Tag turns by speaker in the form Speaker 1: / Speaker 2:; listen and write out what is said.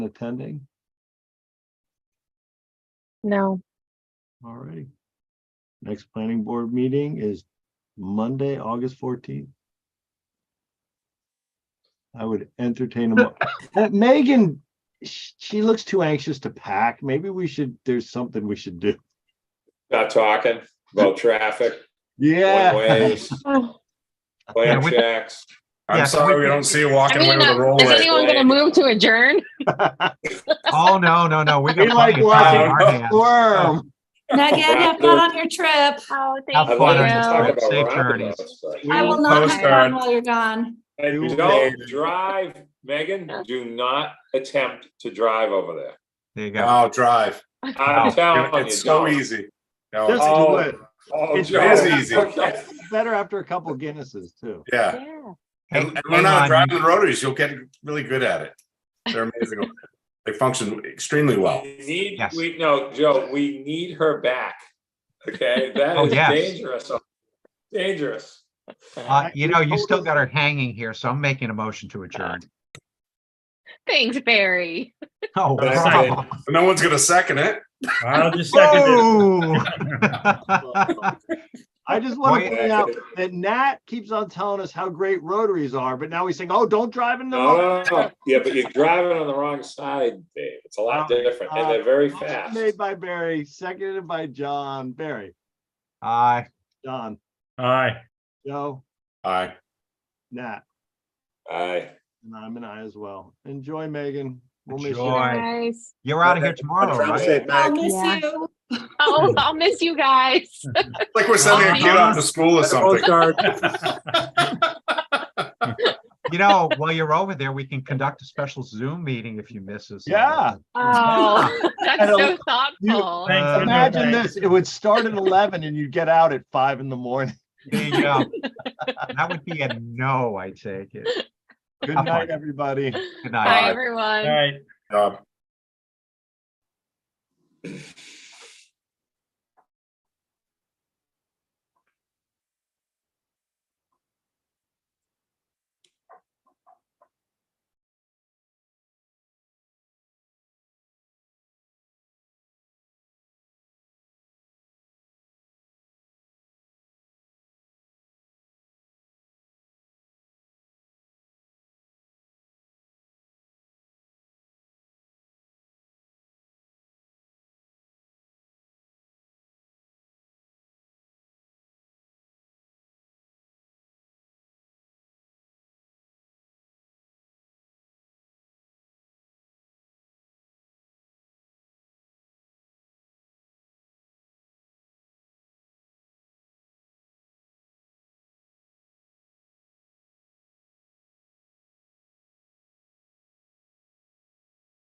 Speaker 1: attending?
Speaker 2: No,
Speaker 1: All righty. Next planning board meeting is Monday, August fourteenth. I would entertain a mo- Uh, Megan, sh- she looks too anxious to pack. Maybe we should, there's something we should do.
Speaker 3: Not talking about traffic, one
Speaker 1: Yeah.
Speaker 3: ways,
Speaker 2: Oh,
Speaker 3: plan
Speaker 4: Yeah, we-
Speaker 3: checks.
Speaker 4: Yeah,
Speaker 5: I'm
Speaker 4: so
Speaker 5: sorry
Speaker 4: we-
Speaker 5: we don't see you
Speaker 2: I
Speaker 5: walking
Speaker 2: mean,
Speaker 5: away with a
Speaker 2: uh, is
Speaker 5: rollaway.
Speaker 2: anyone gonna move to adjourn?
Speaker 4: Oh, no, no, no. We
Speaker 1: We
Speaker 4: got
Speaker 1: like
Speaker 4: plenty of time on our
Speaker 1: watching
Speaker 4: hands.
Speaker 1: worm.
Speaker 6: Megan, have fun on your trip.
Speaker 2: Oh,
Speaker 4: Have
Speaker 3: I'd like to
Speaker 4: you. Fun.
Speaker 3: talk
Speaker 4: Safe
Speaker 3: about roundabouts,
Speaker 4: journeys.
Speaker 3: but-
Speaker 6: I will not have
Speaker 5: Postcard.
Speaker 6: fun while you're gone.
Speaker 5: You
Speaker 3: You
Speaker 5: made
Speaker 3: Don't
Speaker 5: it.
Speaker 3: drive, Megan, do not attempt to drive over there.
Speaker 4: There you go.
Speaker 5: Oh, drive.
Speaker 3: I'm
Speaker 4: Wow.
Speaker 3: telling you.
Speaker 5: It's so
Speaker 3: don't.
Speaker 5: easy. No,
Speaker 1: Just
Speaker 5: oh,
Speaker 1: do
Speaker 3: Oh.
Speaker 1: it.
Speaker 3: Oh,
Speaker 1: It's
Speaker 3: Joe.
Speaker 5: easy, easy.
Speaker 3: Okay.
Speaker 1: Better after a couple Guinnesses too.
Speaker 5: Yeah.
Speaker 2: Yeah.
Speaker 4: Hey,
Speaker 5: And and
Speaker 4: hang
Speaker 5: learn how to
Speaker 4: on.
Speaker 5: drive the rotaries. You'll get really good at it. They're amazing. They function extremely well.
Speaker 3: We Need,
Speaker 4: Yes.
Speaker 3: we, no, Joe, we need her back, okay? That
Speaker 4: Oh,
Speaker 3: is
Speaker 4: yes.
Speaker 3: dangerous, dangerous.
Speaker 4: Uh, You know, you still got her hanging here, so I'm making a motion to adjourn.
Speaker 2: Thanks, Barry.
Speaker 4: Oh,
Speaker 5: But
Speaker 7: I
Speaker 4: wow.
Speaker 5: No one's going to second it.
Speaker 7: I'll just second it.
Speaker 4: Whoa.
Speaker 1: I just want to
Speaker 4: Wait.
Speaker 1: point out that Nat keeps on telling us how great rotaries are, but now he's saying, oh, don't drive in the.
Speaker 3: No,
Speaker 1: road."
Speaker 3: no, no, yeah, but you're driving on the wrong side, Dave. It's a lot different, and they're very
Speaker 1: Motion
Speaker 3: fast.
Speaker 1: Made by Barry, seconded by John. Barry,
Speaker 4: Aye.
Speaker 1: John,
Speaker 7: Aye.
Speaker 1: Joe,
Speaker 5: Aye.
Speaker 1: Nat,
Speaker 3: Aye.
Speaker 1: and I'm an I as well. Enjoy, Megan. We'll miss
Speaker 2: You
Speaker 4: Enjoy.
Speaker 1: you.
Speaker 4: Boy.
Speaker 2: guys.
Speaker 4: You're out of here tomorrow,
Speaker 5: Drive
Speaker 4: right?
Speaker 5: safe,
Speaker 6: I'll
Speaker 5: Meg.
Speaker 6: miss
Speaker 2: Yeah.
Speaker 6: you.
Speaker 2: Oh, I'll miss you guys.
Speaker 5: Like we're sending a kid off to school or something.
Speaker 7: Postcard.
Speaker 4: You know, while you're over there, we can conduct a special Zoom meeting if you miss us.
Speaker 1: Yeah.
Speaker 2: Oh, that's so
Speaker 1: You-
Speaker 2: thoughtful.
Speaker 7: Thanks,
Speaker 4: Uh,
Speaker 7: everybody.
Speaker 1: Imagine this, it would start at eleven and you'd get out at five in the morning.
Speaker 4: There you go. That would be a no, I take it.
Speaker 1: Good night, everybody.
Speaker 4: Good
Speaker 2: Bye,
Speaker 4: night.
Speaker 2: everyone.
Speaker 7: All right.
Speaker 5: Uh,